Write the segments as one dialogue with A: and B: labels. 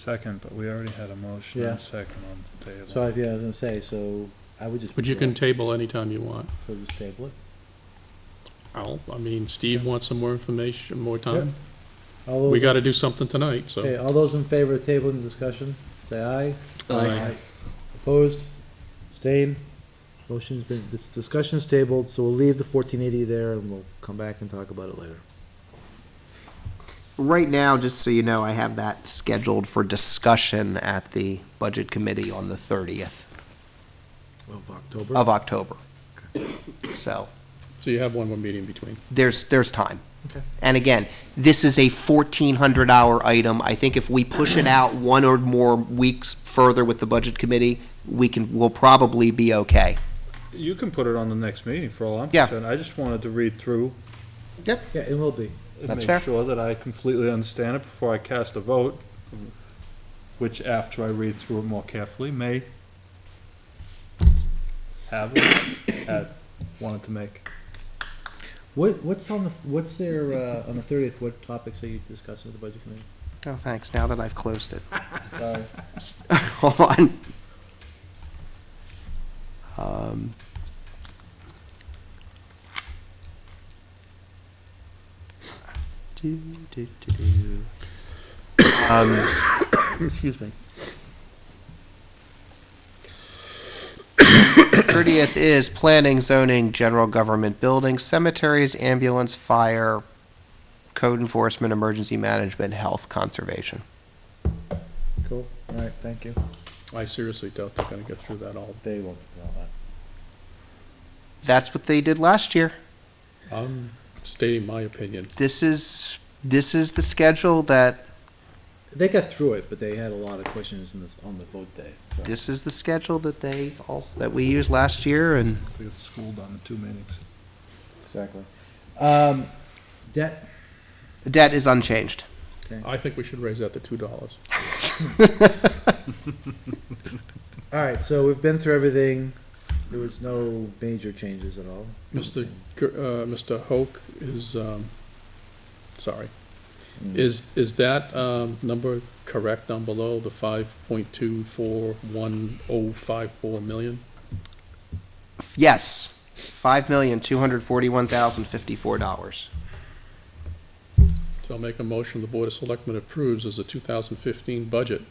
A: second, but we already had a motion
B: Yeah.
A: and second on the table.
B: So, I- yeah, I was gonna say, so I would just.
C: But you
B: withdraw.
C: can table anytime you want.
B: So just table it.
C: I'll, I mean, Steve wants some more information, more
B: Yep.
C: time.
B: All those-
C: We gotta do something tonight,
B: Okay,
C: so.
B: all those in favor of tabling the discussion, say aye.
C: Aye.
B: Opposed, abstained, motion's been, this discussion's tabled, so we'll leave the fourteen eighty there and we'll come back and talk about it later.
D: Right now, just so you know, I have that scheduled for discussion at the Budget Committee on the 30th
B: Of October.
D: of October. So
C: So you have one more meeting in between.
D: there's, there's time.
B: Okay.
D: And again, this is a 1,400-hour item. I think if we push it out one or more weeks further with the Budget Committee, we can, we'll probably be okay.
A: You can put it on the next meeting for all I'm
D: Yeah.
A: concerned. I just wanted to read through
B: Yeah, it will be.
A: and
D: That's
A: make
D: fair.
A: sure that I completely understand it before I cast a vote, which after I read through it more carefully may have it at wanted to make.
B: What, what's on the, what's there, uh, on the thirtieth, what topics are you discussing with the budget committee?
D: Oh, thanks, now that I've closed it.
B: Sorry.
D: Hold on. Um, do, do, do, do. Um,
C: Excuse me.
D: 30th is planning, zoning, general government buildings, cemeteries, ambulance, fire, code enforcement, emergency management, health, conservation.
B: Cool, all right, thank you.
C: I seriously doubt they're gonna get through that all.
B: They won't, no,
D: That's what they did last year.
C: I'm stating my opinion.
D: This is, this is the schedule that
B: they got through it, but they had a lot of questions in this, on the vote day, so.
D: this is the schedule that they also, that we used last year, and
A: We got schooled on the two meetings.
B: Exactly. Um, debt,
D: the debt is unchanged.
C: I think we should raise that to two dollars.
B: all right, so we've been through everything, there was no major changes at all.
C: Mr. Gr- uh, Mr. Hoke is, um, sorry, is, is that, um, number correct down below, the five point two four one oh five four million?
D: Yes, five million, two hundred forty-one thousand, fifty-four dollars.
C: So I'll make a motion, the Board of Selectmen approves as the two thousand fifteen budget,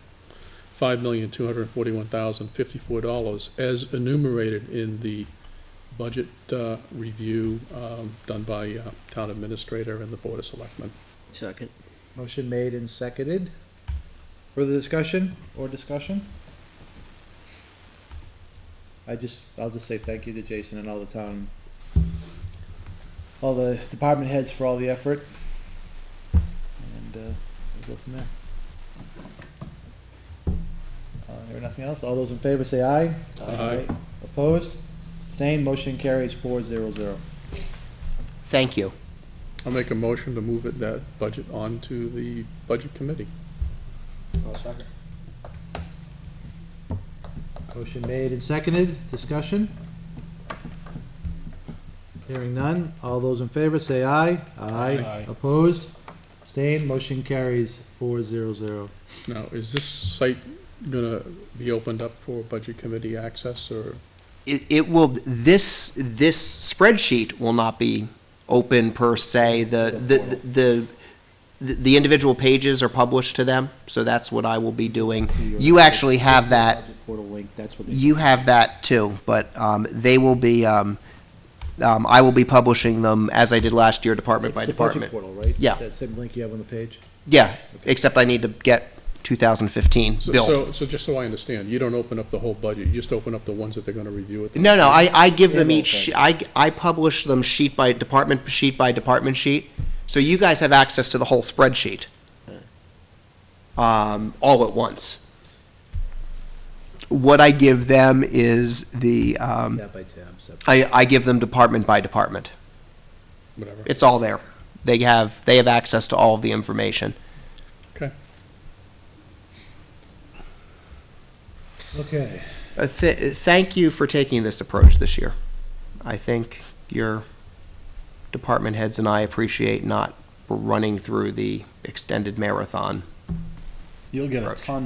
C: five million, two hundred and forty-one thousand, fifty-four dollars, as enumerated in the budget, uh, review, um, done by, uh, Town Administrator and the Board of Selectmen.
E: Second.
B: Motion made and seconded. Further discussion or discussion? I just, I'll just say thank you to Jason and all the town, all the department heads for all the effort. And, uh, we'll go from there. Uh, there nothing else? All those in favor say aye.
C: Aye.
B: Opposed? Abstained? Motion carries four zero zero.
D: Thank you.
C: I'll make a motion to move it, that budget on to the Budget Committee.
B: Motion made and seconded, discussion? Hearing none, all those in favor say aye.
C: Aye.
B: Opposed? Abstained, motion carries four zero zero.
C: Now, is this site gonna be opened up for Budget Committee access, or?
D: It, it will, this, this spreadsheet will not be open per se. The, the, the, the- the individual pages are published to them, so that's what I will be doing. You actually have that
B: Portal link, that's what they.
D: You have that too, but um, they will be, um, um, I will be publishing them as I did last year, department
B: It's
D: by
B: the budget
D: department.
B: portal, right?
D: Yeah.
B: That same link you have on the page?
D: Yeah, except I need to get 2015
C: so-
D: built.
C: So, so just so I understand, you don't open up the whole budget, you just open up the ones that they're gonna review at the.
D: No, no, I, I give them
B: Yeah,
D: each, I, I publish them sheet by department, sheet by department sheet. So you guys have access to the whole spreadsheet. Um, all at once. What I give them is the, um,
B: Tab by tab, so.
D: I, I give them department by department.
C: Whatever.
D: it's all there. They have, they have access to all of the information.
B: Okay.
D: Uh, th- thank you for taking this approach this year. I think your department heads and I appreciate not running through the extended marathon
B: You'll get
D: Approach.
B: ton